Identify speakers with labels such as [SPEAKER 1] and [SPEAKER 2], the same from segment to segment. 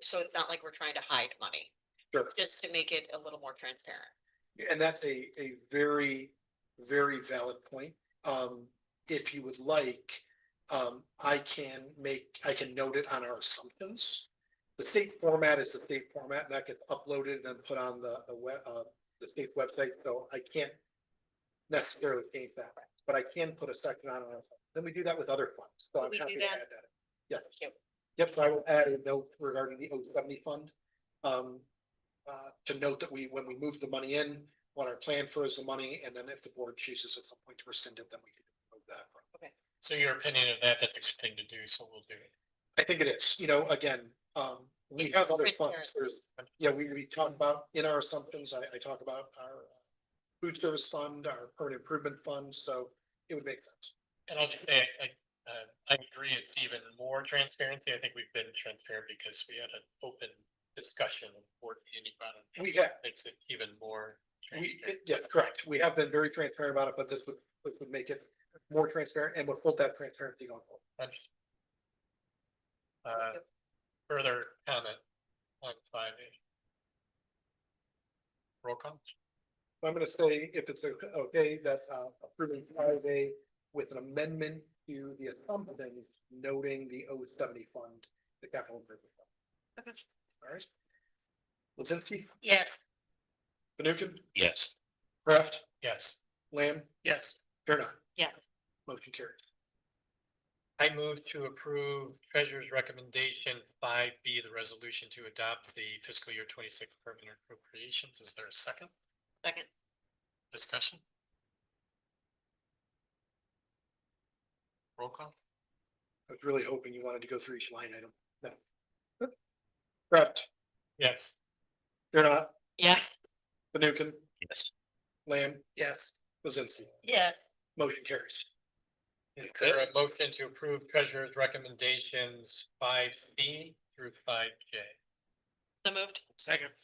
[SPEAKER 1] so it's not like we're trying to hide money,
[SPEAKER 2] Sure.
[SPEAKER 1] just to make it a little more transparent.
[SPEAKER 2] And that's a, a very, very valid point. Um, if you would like, um, I can make, I can note it on our assumptions. The state format is the state format and that gets uploaded and then put on the, the web, uh, the state website, so I can't necessarily change that, but I can put a section on our, then we do that with other funds, so I'm
[SPEAKER 1] We do
[SPEAKER 2] happy to
[SPEAKER 1] that?
[SPEAKER 2] add that. Yeah.
[SPEAKER 1] Yep.
[SPEAKER 2] Yep, I will add a note regarding the 070 fund. Um, uh, to note that we, when we move the money in, what our plan for is the money, and then if the board chooses at some point to rescind it, then we can move that.
[SPEAKER 3] So your opinion of that, that's a good thing to do, so we'll do it.
[SPEAKER 2] I think it is, you know, again, um, we have other
[SPEAKER 1] Right there.
[SPEAKER 2] funds, there's, yeah, we, we talk about in our assumptions, I, I talk about our. uh, Food service fund, our permanent improvement fund, so it would make sense.
[SPEAKER 3] And I'll just say, I, uh, I agree, it's even more transparency. I think we've been transparent because we had an open discussion of board meeting about it.
[SPEAKER 2] We have.
[SPEAKER 3] Makes it even more
[SPEAKER 2] We,
[SPEAKER 3] transparent.
[SPEAKER 2] yeah, correct, we have been very transparent about it, but this would, this would make it more transparent and would hold that transparency going forward.
[SPEAKER 3] Understood. Uh, further comment on five A. Roll call?
[SPEAKER 2] So I'm gonna say, if it's o- okay, that uh, approving five A with an amendment to the assumptions noting the 070 fund, the capital improvement. fund.
[SPEAKER 1] Okay.
[SPEAKER 2] All right. Lizinsky,
[SPEAKER 1] Yes.
[SPEAKER 2] Fanukin,
[SPEAKER 4] Yes.
[SPEAKER 2] Kraft,
[SPEAKER 3] Yes.
[SPEAKER 2] Lamb,
[SPEAKER 3] Yes.
[SPEAKER 2] Karen.
[SPEAKER 1] Yes.
[SPEAKER 2] Motion carries.
[SPEAKER 3] I move to approve treasurer's recommendation five B, the resolution to adopt the fiscal year twenty-six permanent appropriations. Is there a second
[SPEAKER 1] Second,
[SPEAKER 3] discussion? Roll call?
[SPEAKER 2] I was really hoping you wanted to go through each line item. No. Kraft,
[SPEAKER 3] Yes.
[SPEAKER 2] Karen,
[SPEAKER 1] yes.
[SPEAKER 2] Fanukin,
[SPEAKER 4] Yes.
[SPEAKER 2] Lamb. Yes. Lizinsky,
[SPEAKER 1] Yeah.
[SPEAKER 2] motion carries.
[SPEAKER 3] Is there a motion to approve treasurer's recommendations five B through five J?
[SPEAKER 1] So moved.
[SPEAKER 3] Second.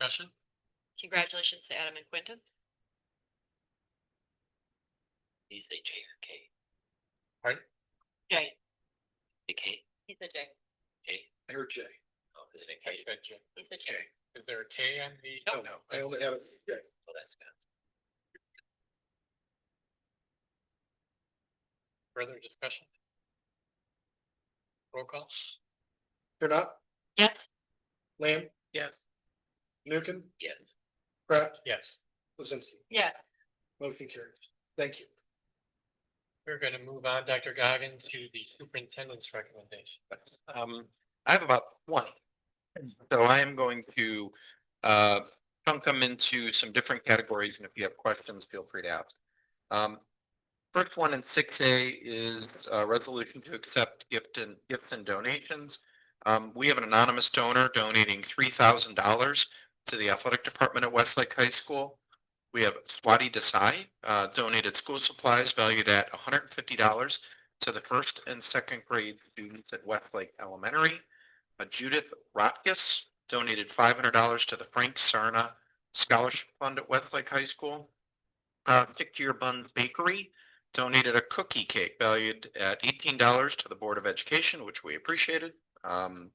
[SPEAKER 3] Discussion?
[SPEAKER 1] Congratulations to Adam and Quentin.
[SPEAKER 4] He's a J or K,
[SPEAKER 1] Jay.
[SPEAKER 4] a K,
[SPEAKER 1] He's a Jay.
[SPEAKER 4] J,
[SPEAKER 2] I heard Jay.
[SPEAKER 4] oh, is it a
[SPEAKER 3] I
[SPEAKER 4] K?
[SPEAKER 3] said J.
[SPEAKER 1] He's a
[SPEAKER 3] J.
[SPEAKER 1] Jay.
[SPEAKER 3] Is there a K on the?
[SPEAKER 2] No, no, Oh, I only have, Jay.
[SPEAKER 4] Well, that's good.
[SPEAKER 3] Further discussion? Roll call?
[SPEAKER 2] Karen,
[SPEAKER 1] Yes.
[SPEAKER 2] Lamb,
[SPEAKER 3] Yes.
[SPEAKER 2] Fanukin,
[SPEAKER 4] Yes.
[SPEAKER 2] Kraft,
[SPEAKER 3] Yes.
[SPEAKER 2] Lizinsky.
[SPEAKER 1] Yeah.
[SPEAKER 2] Motion carries. Thank you.
[SPEAKER 3] We're gonna move on, Dr. Goggin, to the superintendent's recommendation.
[SPEAKER 5] Um, I have about twenty. So I am going to, uh, chunk them into some different categories, and if you have questions, feel free to ask. Um, first one in six A is a resolution to accept gift and, gifts and donations. Um, we have an anonymous donor donating three thousand dollars to the athletic department at Westlake High School. We have Swati Desai, uh, donated school supplies valued at hundred and fifty dollars to the first and second grade students at Westlake Elementary. Uh, Judith Rotkus donated five hundred dollars to the Frank Sarna Scholarship Fund at Westlake High School. Uh, Dick Dearbun Bakery donated a cookie cake valued at eighteen dollars to the Board of Education, which we appreciated. Um,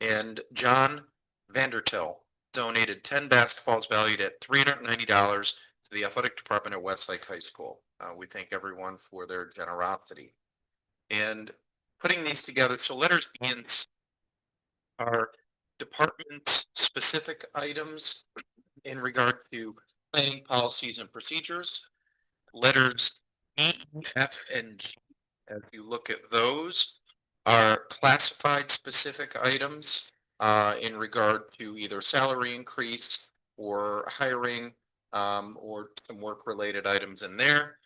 [SPEAKER 5] and John Vandertil donated ten basketballs valued at three hundred and ninety dollars to the athletic department at Westlake High School. Uh, we thank everyone for their generosity. And putting these together, so letters B and C are department specific items in regard to planning policies and procedures. Letters E, F, and G, as you look at those, are classified specific items uh, in regard to either salary increase or hiring um, or some work related items in there.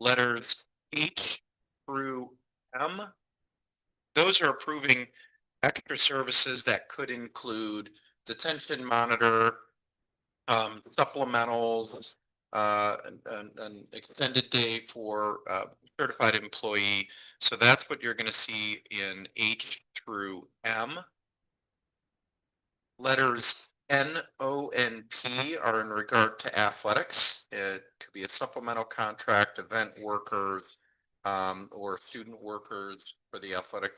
[SPEAKER 5] Letters H through M. Those are approving extra services that could include detention monitor, um, supplementals, uh, an, an- an extended day for, uh, certified employee. So that's what you're gonna see in H through M. Letters N, O, and P are in regard to athletics. It could be a supplemental contract, event workers, um, or student workers for the athletic